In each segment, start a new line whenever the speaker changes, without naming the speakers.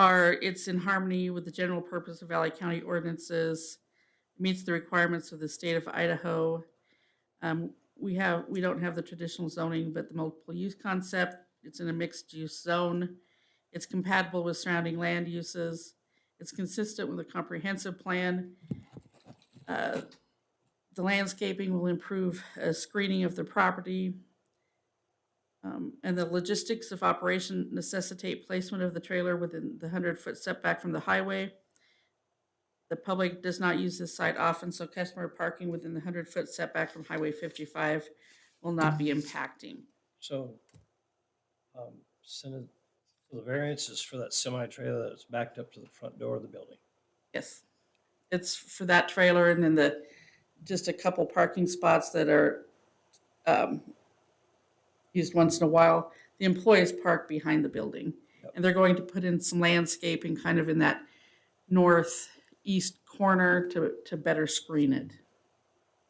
are, it's in harmony with the general purpose of Valley County ordinances, meets the requirements of the state of Idaho. Um, We have, we don't have the traditional zoning, but the multiple use concept, it's in a mixed-use zone. It's compatible with surrounding land uses. It's consistent with a comprehensive plan. Uh, The landscaping will improve uh, screening of the property. Um, And the logistics of operation necessitate placement of the trailer within the 100-foot setback from the highway. The public does not use this site often, so customer parking within the 100-foot setback from Highway 55 will not be impacting.
So, um, send it, so the variance is for that semi-trailer that's backed up to the front door of the building.
Yes. It's for that trailer and then the, just a couple parking spots that are um, used once in a while. The employees park behind the building.
Yep.
And they're going to put in some landscaping kind of in that northeast corner to, to better screen it.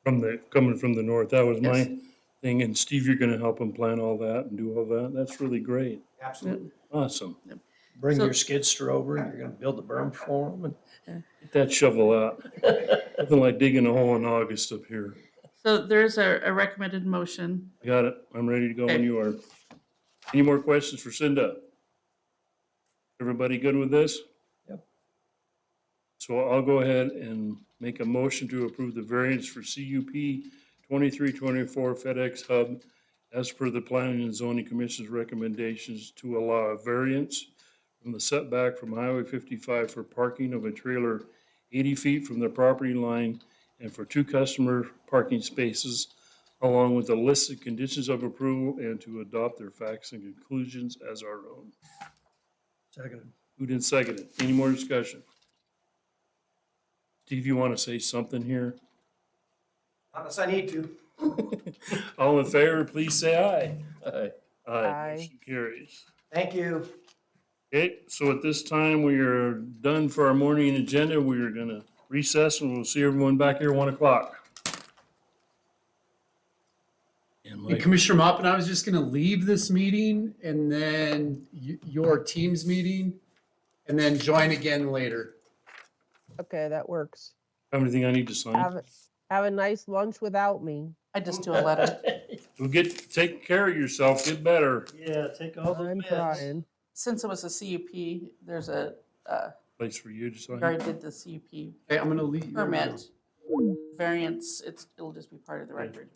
From the, coming from the north, that was
Yes.
my thing, and Steve, you're gonna help him plan all that and do all that, that's really great,
Absolutely.
awesome.
Bring
So-
your skid steer over and you're gonna build the berm for them.
Get that shovel out, nothing like digging a hole in August up here.
So there's a, a recommended motion.
I Got it, I'm ready to go when
Okay.
you are. Any more questions for Cinda? Everybody good with this?
Yep.
So I'll go ahead and make a motion to approve the variance for CUP twenty-three twenty-four FedEx Hub as per the Planning and Zoning Commission's recommendations to allow a variance from the setback from Highway fifty-five for parking of a trailer eighty feet from the property line and for two customer parking spaces along with the list of conditions of approval and to adopt their facts and conclusions as our own.
Second,
Moved and seconded. Any more discussion? Steve, you want to say something here?
Unless I need to.
All in favor, please say aye.
aye,
Aye. Motion Carries.
Thank you.
Okay, so at this time, we are done for our morning agenda. We are gonna recess and we'll see everyone back here one o'clock. And
And
Mike,
Commissioner Mopin, I was just going to leave this meeting and then y- your team's meeting and then join again later.
Okay, that works.
have anything I need to sign?
Have, a- have a nice lunch without me.
I just do a letter.
Well, get, take care of yourself, get better.
Yeah, take all the
I'm
meds.
trying.
Since it was a CUP, there's a, uh,
Place for you to
we
sign.
already did the CUP
Okay, I'm going to leave.
permit variance. It's, it'll just be part of the
Right.
record.